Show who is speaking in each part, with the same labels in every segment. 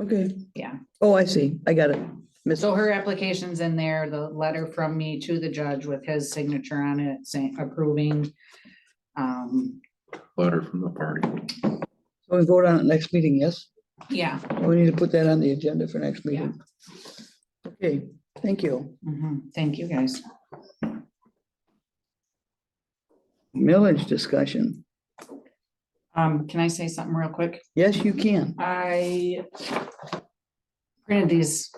Speaker 1: Okay.
Speaker 2: Yeah.
Speaker 1: Oh, I see. I got it. Miss,
Speaker 2: So her application's in there, the letter from me to the judge with his signature on it saying approving. Um,
Speaker 3: letter from the party.
Speaker 1: we vote on it next meeting, yes?
Speaker 2: yeah.
Speaker 1: We need to put that on the agenda for next meeting. Okay, thank you.
Speaker 2: mhm. Thank you, guys.
Speaker 1: Millage discussion.
Speaker 2: Um, can I say something real quick?
Speaker 1: Yes, you can.
Speaker 2: I printed these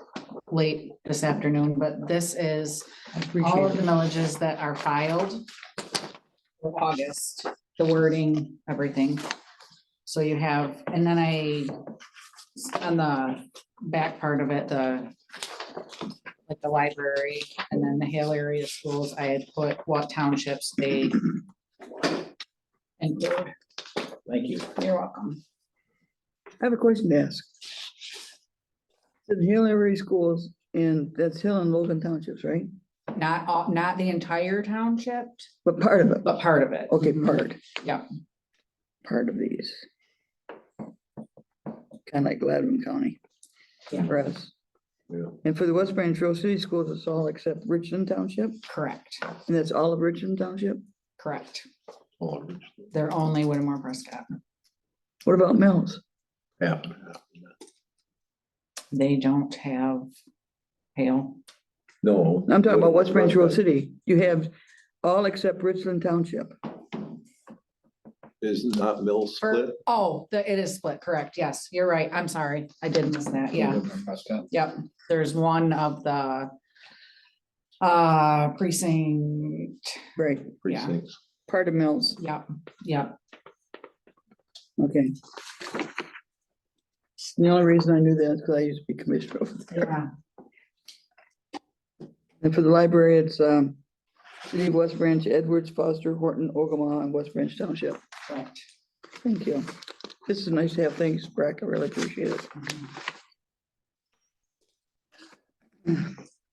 Speaker 2: late this afternoon, but this is
Speaker 1: I
Speaker 2: all
Speaker 1: appreciate
Speaker 2: of
Speaker 1: it.
Speaker 2: the millages that are filed for August, the wording, everything. So you have, and then I, on the back part of it, the like the library and then the Hale area schools, I had put what townships they and
Speaker 4: Thank you.
Speaker 2: you're welcome.
Speaker 1: I have a question to ask. The Hill area schools in, that's Hill and Logan Townships, right?
Speaker 2: Not all, not the entire township,
Speaker 1: But part of it.
Speaker 2: but part of it.
Speaker 1: Okay, part.
Speaker 2: Yeah.
Speaker 1: Part of these. Kind of like Gladwin County.
Speaker 2: Yeah.
Speaker 1: For us.
Speaker 3: Yeah.
Speaker 1: And for the West Branch Trail City Schools, it's all except Richland Township,
Speaker 2: Correct,
Speaker 1: and that's all of Richland Township?
Speaker 2: correct.
Speaker 3: All of it
Speaker 2: They're only Whittemore Prescott.
Speaker 1: What about Mills?
Speaker 3: happened.
Speaker 2: They don't have hail.
Speaker 3: No.
Speaker 1: I'm talking about West Branch Trail City. You have all except Richland Township.
Speaker 3: Is not mill split.
Speaker 2: For, oh, the, it is split, correct, yes, you're right, I'm sorry, I did miss that, yeah, yep, there's one of the uh, precinct,
Speaker 1: Right.
Speaker 3: precincts.
Speaker 1: Part of Mills.
Speaker 2: yep, yep,
Speaker 1: Okay. The only reason I knew that is because I used to be commissioner over there.
Speaker 2: yeah,
Speaker 1: And for the library, it's um, City of West Branch, Edwards, Foster, Horton, Ogama, and West Branch Township.
Speaker 2: correct.
Speaker 1: Thank you. This is nice to have. Thanks, Brack. I really appreciate it.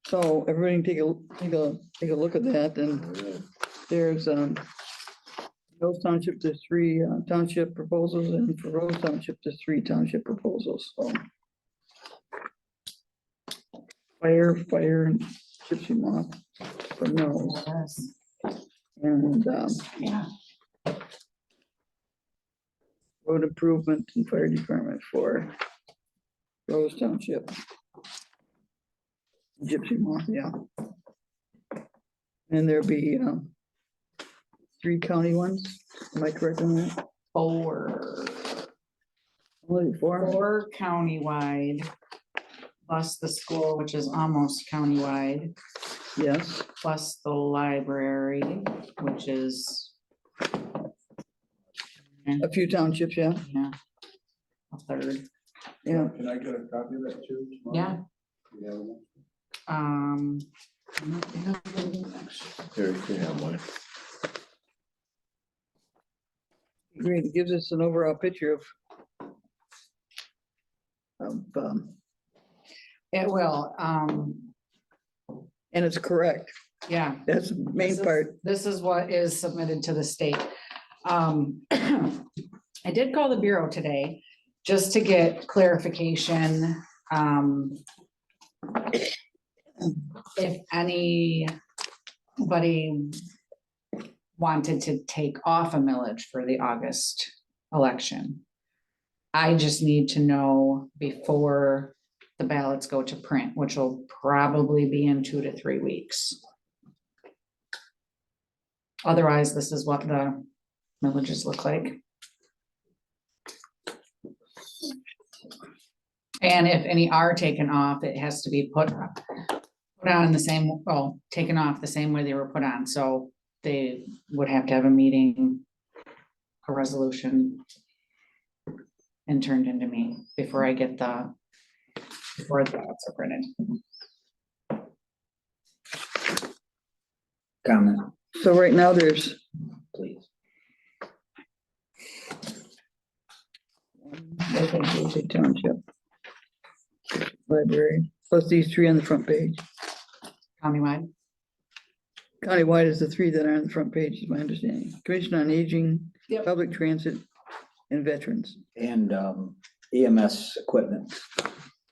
Speaker 1: So everybody take a, take a, take a look at that and there's, um, Rose Township, there's three uh, township proposals and for Rose Township, there's three township proposals, so. Fire, fire and gypsy moth for mills
Speaker 2: Yes,
Speaker 1: and, um,
Speaker 2: Yeah,
Speaker 1: road improvement and fire department for Rose Township. Gypsy Moth, yeah. And there'll be, um, three county ones, am I correct on that?
Speaker 2: four,
Speaker 1: Only four?
Speaker 2: four countywide, plus the school, which is almost countywide.
Speaker 1: Yes,
Speaker 2: plus the library, which is.
Speaker 1: a few townships, yeah,
Speaker 2: Yeah. A third,
Speaker 1: yeah.
Speaker 4: Can I get a copy of that too? tomorrow?
Speaker 2: yeah,
Speaker 4: You have one?
Speaker 2: um.
Speaker 3: Here, you can have mine.
Speaker 1: Great, it gives us an overall picture of of, um,
Speaker 2: It will, um,
Speaker 1: and it's correct,
Speaker 2: yeah.
Speaker 1: that's the main
Speaker 2: This is-
Speaker 1: part,
Speaker 2: This is what is submitted to the state. Um, I did call the Bureau today just to get clarification, um. If anybody wanted to take off a millage for the August election. I just need to know before the ballots go to print, which will probably be in two to three weeks. Otherwise, this is what the villages look like. And if any are taken off, it has to be put up- put on in the same, well, taken off the same way they were put on, so they would have to have a meeting, a resolution and turned into me before I get the before the ballots are printed.
Speaker 4: Comment,
Speaker 1: so right now there's
Speaker 4: please.
Speaker 1: Lindsay Township. Library, plus these three on the front page.
Speaker 2: Countywide,
Speaker 1: Countywide is the three that are on the front page, is my understanding. Commission on Aging,
Speaker 2: Yep.
Speaker 1: Public Transit, and Veterans.
Speaker 4: And um, EMS E equipment.